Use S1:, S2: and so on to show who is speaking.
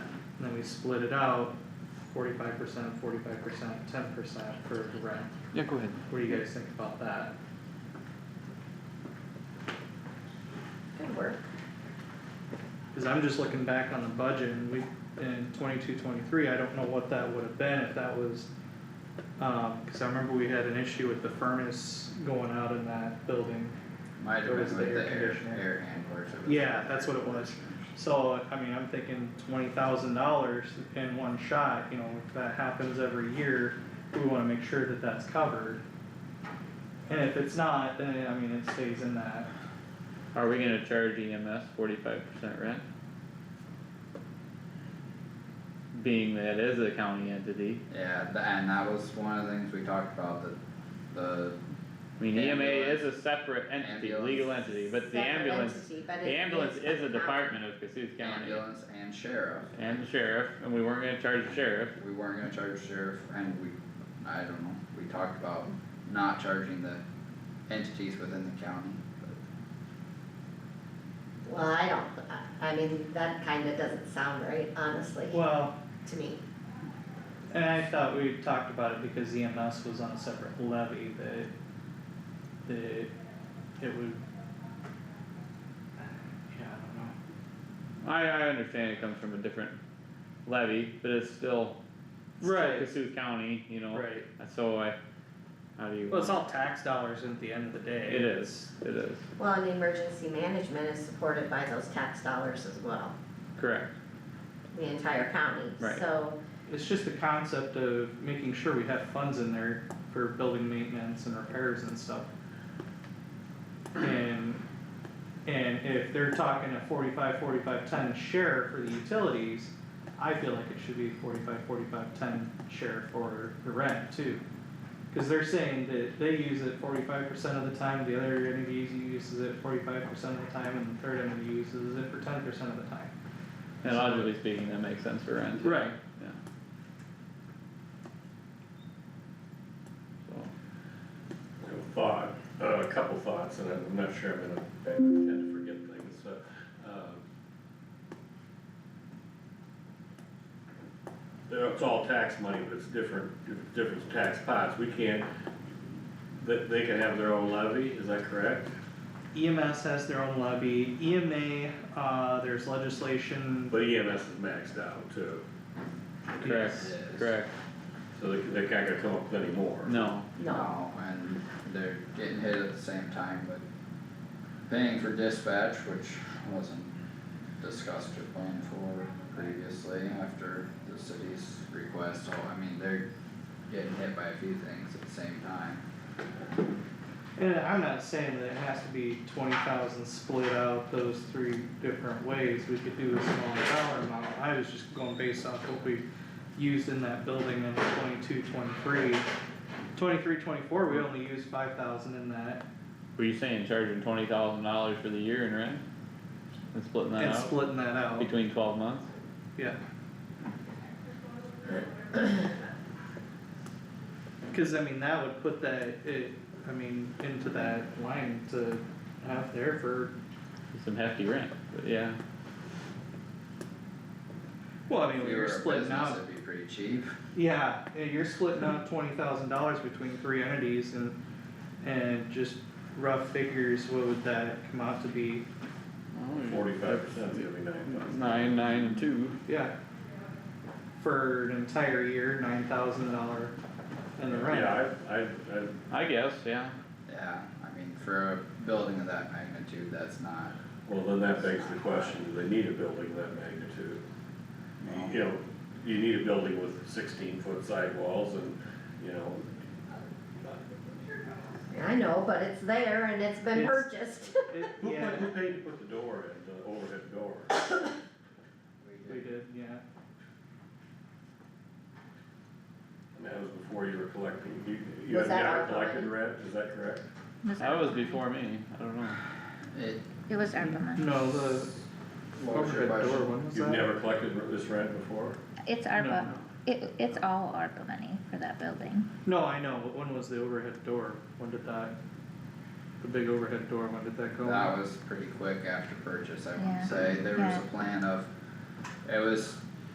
S1: we split it out, forty-five percent, forty-five percent, ten percent for rent.
S2: Yeah, go ahead.
S1: What do you guys think about that?
S3: Good work.
S1: Cause I'm just looking back on the budget and we, in twenty-two, twenty-three, I don't know what that would have been if that was. Um, cause I remember we had an issue with the furnace going out in that building.
S4: Might have been
S1: Or is
S4: with
S1: it
S4: the
S1: air
S4: air,
S1: conditioner?
S4: air handlers. or the-
S1: Yeah, that's what it was. So, I mean, I'm thinking twenty thousand dollars in one shot, you know, if that happens every year, we wanna make sure that that's covered. And if it's not, then, I mean, it stays in that.
S2: Are we gonna charge EMS forty-five percent rent? Being that it is a county entity,
S4: Yeah, th- and that was one of the things we talked about, the, the,
S2: I mean, EMA
S4: Ambulance.
S2: is a separate entity,
S4: Ambulance.
S2: legal entity, but the
S3: Separate
S2: ambulance,
S3: entity, but
S2: the
S3: it
S2: ambulance is a
S3: not-
S2: department of Cassuth County.
S4: ambulance and sheriff.
S2: And the sheriff, and we weren't gonna charge the sheriff,
S4: We weren't gonna charge sheriff and we, I don't know, we talked about not charging the entities within the county. but-
S3: Well, I don't, I, I mean, that kinda doesn't sound right, honestly,
S1: Well,
S3: to me.
S1: and I thought we talked about it because EMS was on a separate levy that, that it would. Yeah, I don't know.
S2: I, I understand it comes from a different levy, but it's still. still
S1: Right.
S2: Cassuth County, you know,
S1: Right,
S2: so I, how do you?
S1: well, it's all tax dollars at the end of the day.
S2: It is, it is,
S3: Well, and emergency management is supported by those tax dollars as well,
S2: correct,
S3: the entire county,
S2: Right.
S3: so,
S1: It's just the concept of making sure we have funds in there for building maintenance and repairs and stuff. And, and if they're talking a forty-five, forty-five, ten share for the utilities, I feel like it should be forty-five, forty-five, ten share for the rent too. Cause they're saying that they use it forty-five percent of the time, the other entity uses it forty-five percent of the time, and the third entity uses it for ten percent of the time.
S2: and logically speaking, that makes sense for rent.
S1: Right.
S2: Yeah. So,
S5: I have a thought, uh, a couple thoughts, and I'm not sure I'm gonna, I tend to forget things, so, um. It's all tax money, but it's different, different tax pots, we can't, they, they can have their own levy, is that correct?
S1: EMS E has their own levy, EMA, uh, there's legislation,
S5: But EMS is maxed out too,
S2: correct,
S4: Yes.
S2: correct,
S5: so they, they're not gonna come up with any more.
S2: no,
S3: no,
S4: No, and they're getting hit at the same time, but paying for dispatch, which wasn't discussed or planned for previously after the city's request, so I mean, they're getting hit by a few things at the same time.
S1: and I'm not saying that it has to be twenty thousand split out those three different ways, we could do a smaller dollar amount. I was just going based off what we used in that building in 22, 23. 23, 24. we only used five thousand in that,
S2: were you saying charging twenty thousand dollars for the year in rent? And splitting that
S1: and
S2: out
S1: splitting that out,
S2: between twelve months?
S1: yeah. Cause I mean, that would put that, it, I mean, into that line to have there for
S2: Some hefty rent, but yeah,
S1: Well, I mean,
S4: If
S1: we
S4: you were
S1: were
S4: a
S1: splitting
S4: business,
S1: out,
S4: it'd be pretty cheap.
S1: yeah, yeah, you're splitting out twenty thousand dollars between three entities and, and just rough figures, what would that come out to be?
S5: Oh, Forty-five percent, the other nine thousand.
S2: nine, nine and two.
S1: Yeah. For an entire year, nine thousand dollar in the rent,
S5: Yeah, I, I, I
S2: I guess, yeah,
S4: Yeah, I mean, for a building of that magnitude, that's not,
S5: Well, then that begs the question, do they need a building of that magnitude? You know, you need a building with sixteen foot sidewalls and, you know,
S3: I know, but it's there and it's been
S1: It's-
S3: purchased.
S1: It-
S5: who put,
S1: yeah,
S5: who paid to put the door in, the overhead door?
S1: we did, yeah,
S5: And that was before you were collecting, you, you
S3: Was
S5: had
S3: that our
S5: never collected
S3: money?
S5: rent, is that correct?
S2: that was before me, I don't know.
S4: it,
S6: It was ARPA money.
S1: no, the
S4: what was your
S1: overhead door,
S4: question?
S1: when was that?
S5: You've never collected r- this rent before?
S6: It's ARPA, it, it's all ARPA money for that building.
S1: No, I know, but when was the overhead door, when did that, the big overhead door, when did that go? in?
S4: That was pretty quick after purchase, I
S6: Yeah.
S4: would say, there was
S6: Yeah.
S4: a plan of, it was